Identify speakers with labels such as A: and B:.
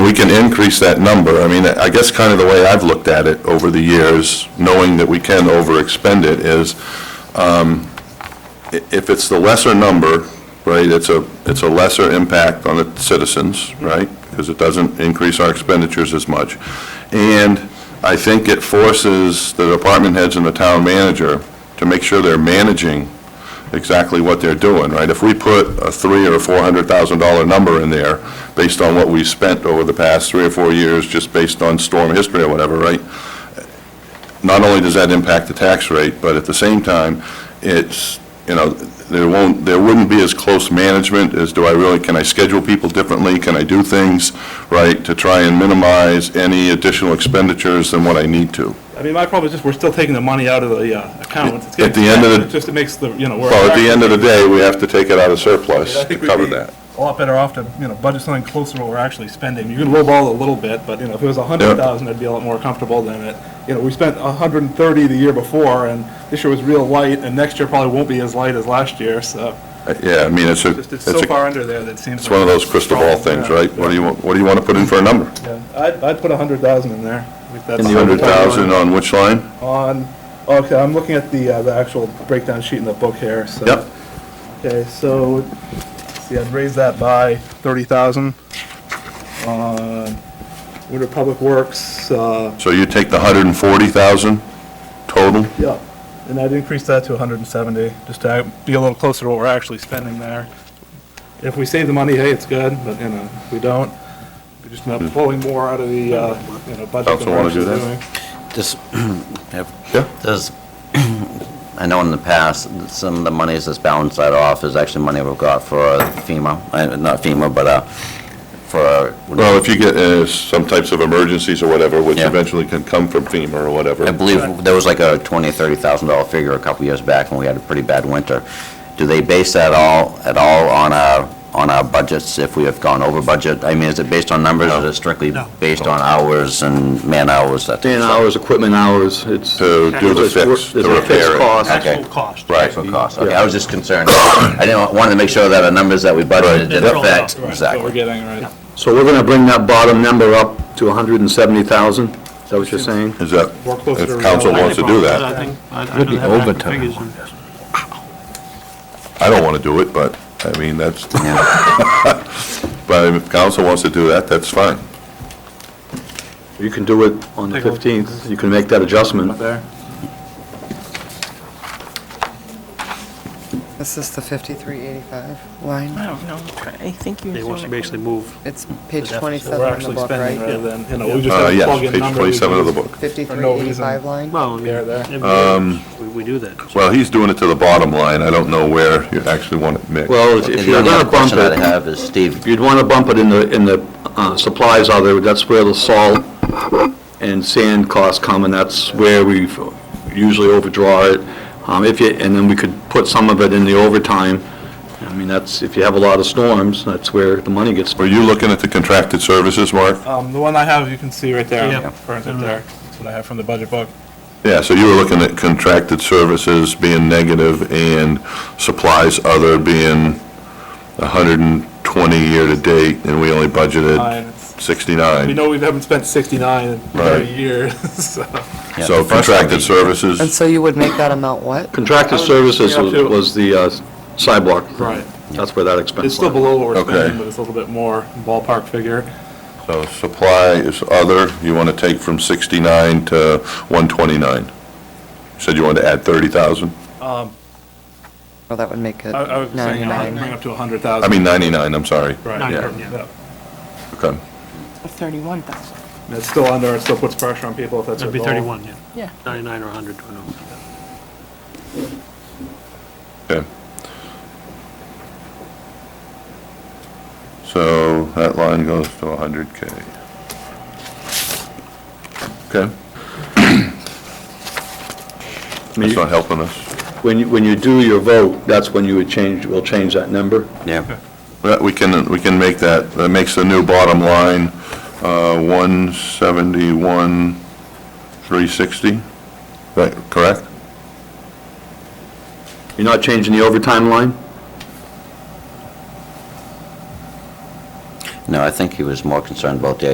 A: we can increase that number. I mean, I guess kind of the way I've looked at it over the years, knowing that we can overexpend it, is um, i- if it's the lesser number, right, it's a, it's a lesser impact on the citizens, right? Because it doesn't increase our expenditures as much. And I think it forces the department heads and the town manager to make sure they're managing exactly what they're doing, right? If we put a three or a four hundred thousand dollar number in there, based on what we spent over the past three or four years, just based on storm history or whatever, right? Not only does that impact the tax rate, but at the same time, it's, you know, there won't, there wouldn't be as close management as do I really, can I schedule people differently? Can I do things, right, to try and minimize any additional expenditures than what I need to?
B: I mean, my problem is just, we're still taking the money out of the uh, account. It's
A: At the
B: getting-
A: end of the-
B: it Just it makes the, you know, we're.
A: Well, at the end of the day, we have to take it out of surplus
B: I
A: to
B: think we'd
A: cover
B: be
A: that.
B: A lot better off to, you know, budget something closer to what we're actually spending. You can lowball it a little bit, but, you know, if it was a hundred thousand, I'd be a lot more comfortable than it. You know, we spent a hundred and thirty the year before, and this year was real light, and next year probably won't be as light as last year, so.
A: Uh, Yeah, I mean, it's a,
B: Just, it's
A: it's
B: so
A: a
B: far uh, under there that it seems.
A: It's one of those crystal ball things, right? What do you, want- what do you want to put in for a number?
B: Yeah, I'd, I'd put a hundred thousand in there. I think that's-
A: 100,000 on which line?
B: On, okay, I'm looking at the, uh, the actual breakdown sheet in the book here, so.
A: Yep.
B: Okay, so, let's see, I'd raise that by thirty thousand. Uh, Winter Public Works, uh,
A: So you take the 140,000 total?
B: yeah, and I'd increase that to hundred and seventy, just to be a little closer to what we're actually spending there. If we save the money, hey, it's good, but, you know, if we don't, we're just not pulling more out of the, uh, you know, budget. than
A: Council
B: we're
A: wanna do
B: actually
A: that?
B: doing.
C: Just, have-
A: Yeah.
C: does, I know in the past, some of the monies that's balanced that off is actually money we've got for FEMA, uh, not FEMA, but uh, for,
A: Well, if you get uh, some types of emergencies or whatever, which
C: Yeah.
A: eventually can come from FEMA or whatever.
C: I believe there was like a $20,000, $30,000 figure a couple years back when we had a pretty bad winter. Do they base that all, at all on our, on our budgets if we have gone over budget? I mean, is it based on numbers or is it strictly based on hours and man hours? that type
D: Man
C: of
D: hours, equipment hours, it's.
A: To do the
D: It's wor-
A: fix, to
D: it's a fixed
A: repair it.
D: cost.
C: Okay.
B: Actual cost.
A: Right.
C: Actual cost, okay, I was just concerned, I didn't, wanted to make sure that our numbers that we budgeted did
B: They're all out,
C: affect,
B: right, What we're
C: exactly.
B: getting, right.
D: So we're gonna bring that bottom number up to hundred and seventy thousand? Is that what you're saying?
A: Is that,
B: We're closer to
A: if council
B: reality.
A: wants to do that.
E: I think, I I don't have the figures. on-
A: I don't want to do it, but, I mean, that's, but if council wants to do that, that's fine.
D: You can do it on the
B: Take a look.
D: fifteenth, you can make that adjustment.
B: Up there.
F: This is the 5385 line.
E: I don't know, I think you.
G: They want you to basically move
F: It's page
G: deficit.
B: So we're
F: 27 in the
B: actually
F: book,
B: spending
F: right?
B: rather than, you know, we just
A: Uh,
B: have to
A: Yes,
B: plug in
A: page
B: numbers. we
A: 27 of the book.
B: just- no reason.
F: 5385 line?
G: Well, I mean,
B: There, there.
G: every
A: Um,
G: year, we- we do that.
A: Well, he's doing it to the bottom line. I don't know where you actually want it mixed.
D: Well, if- if
C: The
D: you're
C: only
D: gonna
C: other
D: bump
C: question that I
D: it,
C: have is, Steve,
D: you'd wanna bump it in the, in the uh, supplies other, that's where the salt and sand costs come, and that's where we usually overdraw it. Um, if you, and then we could put some of it in the overtime. I mean, that's, if you have a lot of storms, that's where the money gets.
A: Were you looking at the contracted services, Mark?
B: Um, the one I have, you can see right there.
E: Yeah.
B: For instance, there. That's what I have from the budget book.
A: Yeah, so you were looking at contracted services being negative and supplies other being 120 year-to-date, and we only budgeted
B: Nine. It's- We
A: 69.
B: know we haven't spent 69 in
A: Right.
B: 30 years, so.
C: Yeah,
A: So
C: the first one
A: contracted
C: we-
F: And
A: services,
F: so you would make that amount what?
D: Contracted services was was the uh, sidewalk.
B: Right.
D: That's where that expense.
B: It's still
D: was.
B: below what we're
A: Okay.
B: spending, but it's a little bit more ballpark figure.
A: so supply is other, you want to take from 69 to 129. You Said you wanted to add 30,000?
F: Well, that would make it
B: I, I was saying, you know, I'd
F: 99.
B: bring up to
A: I
B: 100,000.
A: mean 99, I'm sorry.
B: Right,
A: yeah.
B: yeah.
A: Okay.
G: Thirty-one thousand.
B: And it's still under, it still puts pressure on people if that's
G: That'd
B: their
G: be
B: goal.
G: thirty-one, yeah.
E: Yeah.
G: Ninety-nine or a hundred, I know.
A: Okay. So that line goes to 100K. Okay,
D: I mean,
A: that's
D: you-
A: not helping us.
D: When you, when you do your vote, that's when you would change, will change that number.
C: Yeah,
A: But we can, we can make that, that makes the new bottom line uh, 171, 360, right, correct?
D: You're not changing the overtime line?
C: no, I think he was more concerned about the